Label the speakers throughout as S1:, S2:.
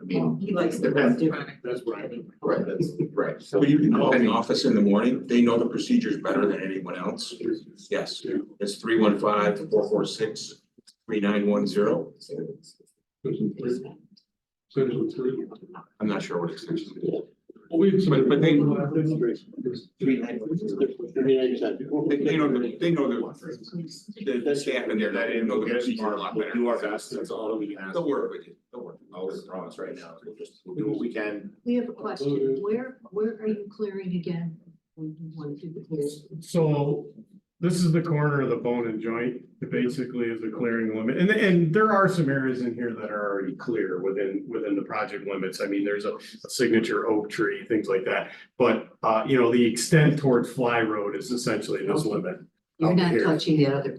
S1: mean,
S2: He likes the
S1: Depends.
S2: restaurant.
S3: That's what I mean.
S1: right, that's right.
S4: So you can call the office in the morning, they know the procedures better than anyone else. Yes, it's three one five, four four six, three nine one zero,
S3: Section three.
S4: I'm not sure what extension it is.
S3: Well, we.
S4: But- but they-
S3: Three ninety.
S4: They they know, the- they know the, the staff in there, they didn't know the procedure a lot better.
S5: Do our best, that's all we can ask.
S4: They'll work with you, they'll work.
S5: Always promise right now, we'll just, we'll do what we can.
S2: We have a question. Where, where are you clearing again? When you want to do the clearing?
S6: So this is the corner of the bone and joint, it basically is a clearing limit, and and there are some areas in here that are already clear within within the project limits. I mean, there's a a signature oak tree, things like that. But uh, you know, the extent towards Fly Road is essentially this limit.
S2: You're not
S6: Here.
S2: touching the other.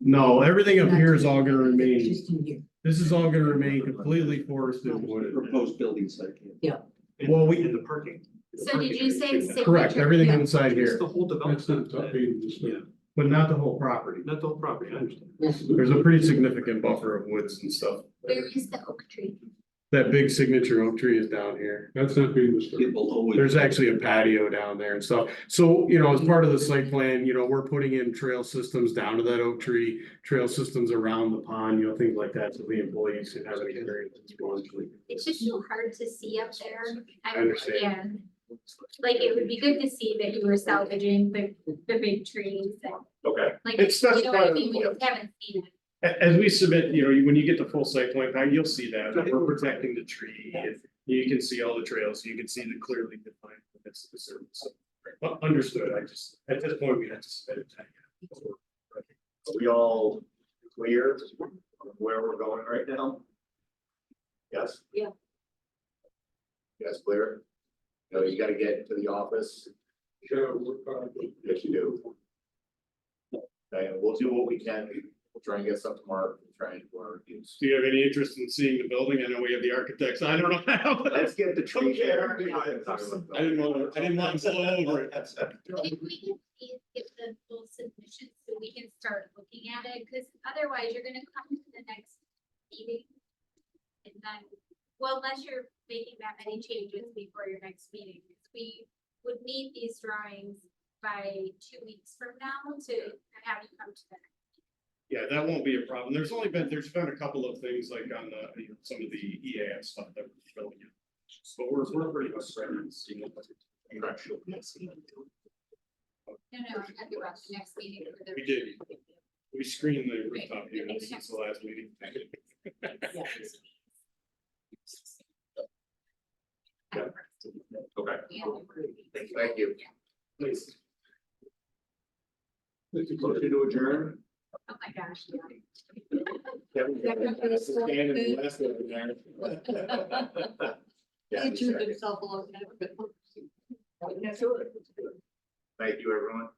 S6: No, everything up here is all gonna remain,
S2: Just in here.
S6: this is all gonna remain completely forested wooded.
S3: Proposed building site.
S6: Well, we-
S3: In the parking.
S7: So did you say signature?
S6: Correct, everything
S7: yeah.
S6: inside
S3: It's
S6: here,
S3: the whole development. Yeah,
S6: but not the whole property.
S3: not the whole property, I understand.
S6: There's a pretty significant buffer of woods and stuff.
S7: Where is the oak tree?
S6: That big signature oak tree is down here.
S3: That's not being disturbed.
S6: There's actually a patio down there and stuff. So, you know, as part of the site plan, you know, we're putting in trail systems down to that oak tree, trail systems around the pond, you know, things like that, so the employees can have an experience.
S7: It's just so hard to see up there.
S6: I understand.
S7: yeah. Like, it would be good to see that you were salvaging the, the big trees and
S6: Okay.
S7: like,
S6: It's-
S7: you
S6: that's
S7: know what I
S6: part
S7: mean? We
S6: of-
S7: just haven't seen it.
S6: A- as we submit, you know, you- when you get the full site plan, plan, you'll see that, that we're protecting the tree. and You can see all the trails, you can see the clearly defined, limits of the service. So, u- Understood, I just, at this point, we had to submit it.
S5: Are we all clear of where we're going right now? Yes?
S2: Yeah.
S5: You guys clear? No, you gotta get to the office. Yes, you do. Okay, we'll do what we can. We'll try and get something marked, We'll try and do our reviews.
S6: Do you have any interest in seeing the building? I know we have the architects, I don't know.
S5: Let's get the tree
S6: I
S5: care.
S6: didn't want to, I didn't want to blow over it.
S7: But If we can please get the full submission so we can start looking at it, because otherwise you're gonna come to the next meeting. And then, well, unless you're making that many changes before your next meeting, we would need these drawings by two weeks from now to have you come to the next
S6: Yeah, that won't be a problem. There's only been, there's been a couple of things like on the, you know, some of the EAF stuff that we're filling in. But we're, we're pretty much ready to see what-
S7: No, no, I'm talking about the next meeting for the.
S6: We did. We screened the rooftop units since the last meeting.
S4: Okay.
S7: Yeah. oh
S5: Thank you.
S6: Please.
S5: Motion to adjourn.
S7: Oh, my gosh.
S5: Kevin,
S2: That would be a slow
S5: stand in the
S2: food.
S5: last one there. Yeah,
S2: He chewed
S5: second.
S2: himself a little bit.
S5: Thank you, everyone.